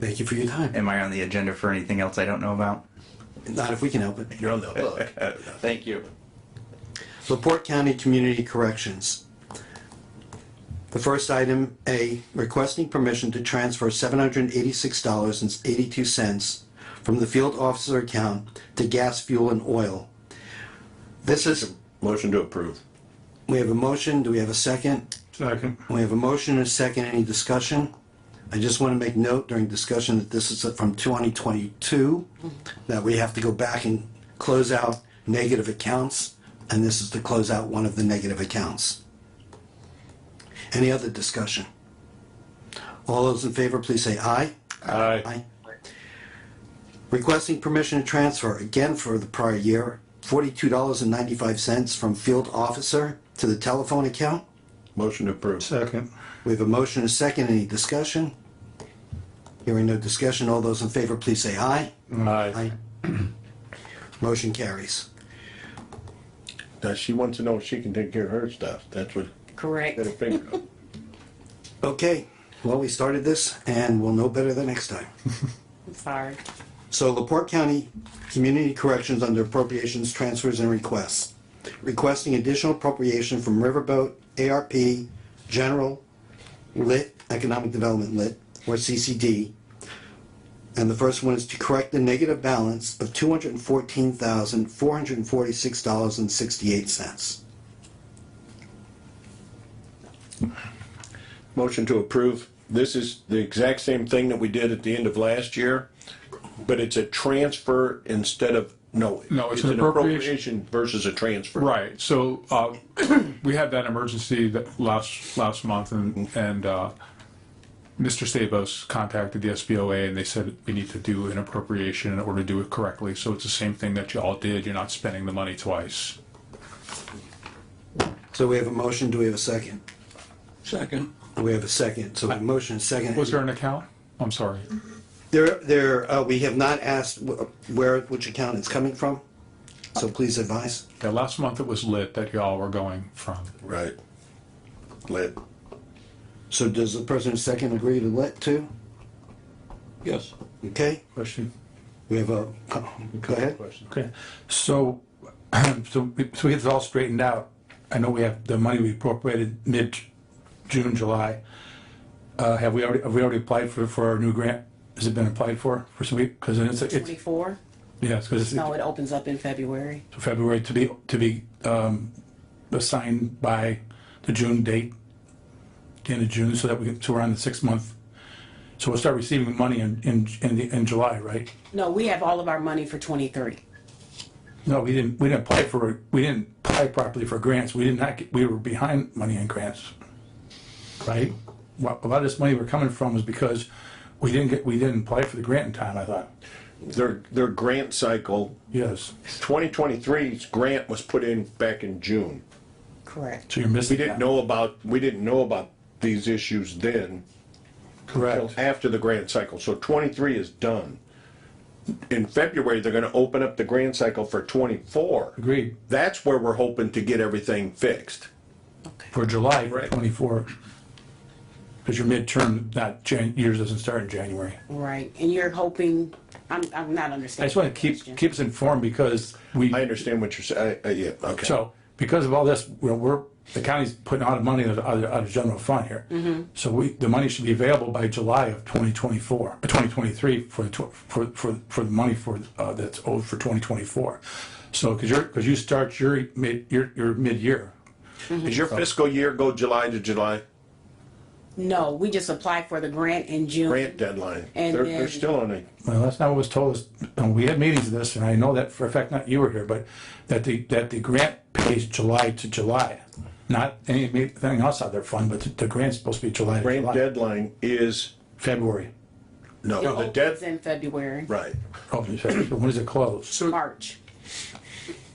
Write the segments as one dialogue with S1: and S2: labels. S1: Thank you for your time.
S2: Am I on the agenda for anything else I don't know about?
S1: Not if we can help it. You're on the hook.
S2: Uh, Thank you.
S1: LaPorte County Community Corrections. The first item, A, requesting permission to transfer seven hundred and eighty-six dollars and eighty-two cents from the field officer account to gas, fuel, and oil. This is,
S3: Motion to approve.
S1: we have a motion, do we have a second?
S4: Second.
S1: We have a motion and a second, any discussion? I just want to make note during discussion that this is from 2022, that we have to go back and close out negative accounts, and this is to close out one of the negative accounts. Any other discussion? All those in favor, please say aye.
S4: Aye.
S1: Aye. Requesting permission to transfer, again for the prior year, $42.95 from field officer to the telephone account.
S3: Motion to approve.
S4: Second.
S1: We have a motion and a second. Any discussion? Hearing no discussion, all those in favor, please say aye.
S4: Aye.
S1: Motion carries.
S3: Now, she wants to know if she can take care of her stuff. That's what,
S5: Correct.
S3: get her finger up.
S1: Okay, well, we started this and we'll know better the next time.
S5: I'm sorry.
S1: So Laporte County Community Corrections under appropriations, transfers, and requests. Requesting additional appropriation from Riverboat, ARP, General, Lit, Economic Development Lit, or CCD. And the first one is to correct the negative balance of two hundred and fourteen thousand, four hundred and forty-six dollars and sixty-eight cents.
S3: Motion to approve. This is the exact same thing that we did at the end of last year, but it's a transfer instead of, no.
S4: No, it's an appropriation.
S3: appropriation Versus a transfer.
S4: Right, so, uh, we had that emergency that last, last month and, and, uh, Mr. Sabos contacted the SBOA and they said we need to do an appropriation in order to do it correctly. So it's the same thing that you all did. You're not spending the money twice.
S1: So we have a motion, do we have a second?
S3: Second.
S1: We have a second, so we have a motion, and a second.
S4: Was there an account? I'm sorry.
S1: There, there, uh, we have not asked wh- where, which account it's coming from, so please advise.
S4: Yeah, last month it was lit that y'all were going from.
S3: Right. Lit.
S1: So does the person second agree to let too?
S3: Yes.
S1: Okay,
S4: Question?
S1: we have a, oh, go ahead.
S6: Okay, so, so we so we get this all straightened out. I know we have the money we appropriated mid-June, July. Uh, have we already, have we already applied for, for our new grant? Has it been applied for, for some, because it's, it's,
S5: Twenty-four?
S6: yeah, because
S5: No,
S6: it's
S5: it opens up in February.
S6: February to be, to be, um, assigned by the June date, the end of June, so that we, so we're on the six-month. So we'll start receiving money in, in, in, the- in July, right?
S5: No, we have all of our money for twenty thirty.
S6: No, we didn't, we didn't apply for, we didn't apply properly for grants. We did not, get we were behind money in grants. Right? What, a lot of this money we're coming from was because we didn't get, we didn't apply for the grant in time, I thought.
S3: Their, their grant cycle,
S6: Yes.
S3: 2023's grant was put in back in June.
S5: Correct.
S6: So you're
S3: We
S6: missing
S3: didn't
S6: that.
S3: know about, we didn't know about these issues then.
S6: Correct.
S3: after the grant cycle, so twenty-three is done. In February, they're gonna open up the grant cycle for twenty-four.
S6: Agreed.
S3: That's where we're hoping to get everything fixed.
S6: For July
S3: Right.
S6: twenty-four. Cause your midterm, not Jan, yours doesn't start in January.
S5: Right, and you're hoping, I'm, I'm not
S6: I
S5: understanding.
S6: just wanna
S5: the
S6: keep,
S5: question.
S6: keep us informed because we.
S3: I understand what you're saying, I, I, yeah, okay.
S6: So because of all this, we're, we're, the county's putting out of money out of, out of general fund here. So we, the money should be available by July of twenty twenty-four, uh, twenty twenty-three for, the tw- for, for, for the money for, uh, that's owed for twenty twenty-four. So, cause you're, cause you start your mid, your, your mid-year.
S3: Does your fiscal year go July to July?
S5: No, we just applied for the grant in June.
S3: Grant deadline,
S5: And
S3: they're,
S5: then-
S3: they're still on it.
S6: Well, that's not what was told us. Uh, We had meetings of this and I know that for a fact, not you were here, but that the, that the grant pays July to July. Not any- anything else out of their fund, but the- the grant's supposed to be July to
S3: Grant
S6: July,
S3: deadline is,
S6: February.
S5: It
S3: no, the
S5: opens
S3: dead,
S5: in February,
S3: right.
S6: Hopefully, February. When does it close?
S5: March.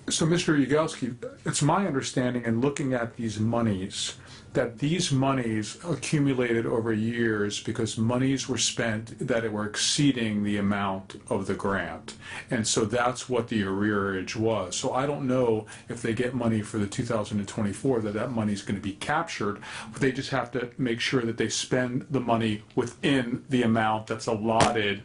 S4: So, Mr. Yagowski, it's my understanding in looking at these monies that these monies accumulated over years because monies were spent that were exceeding the amount of the grant. And so that's what the arrearage was. So I don't know if they get money for the 2024, that that money's going to be captured. But They just have to make sure that they spend the money within the amount that's allotted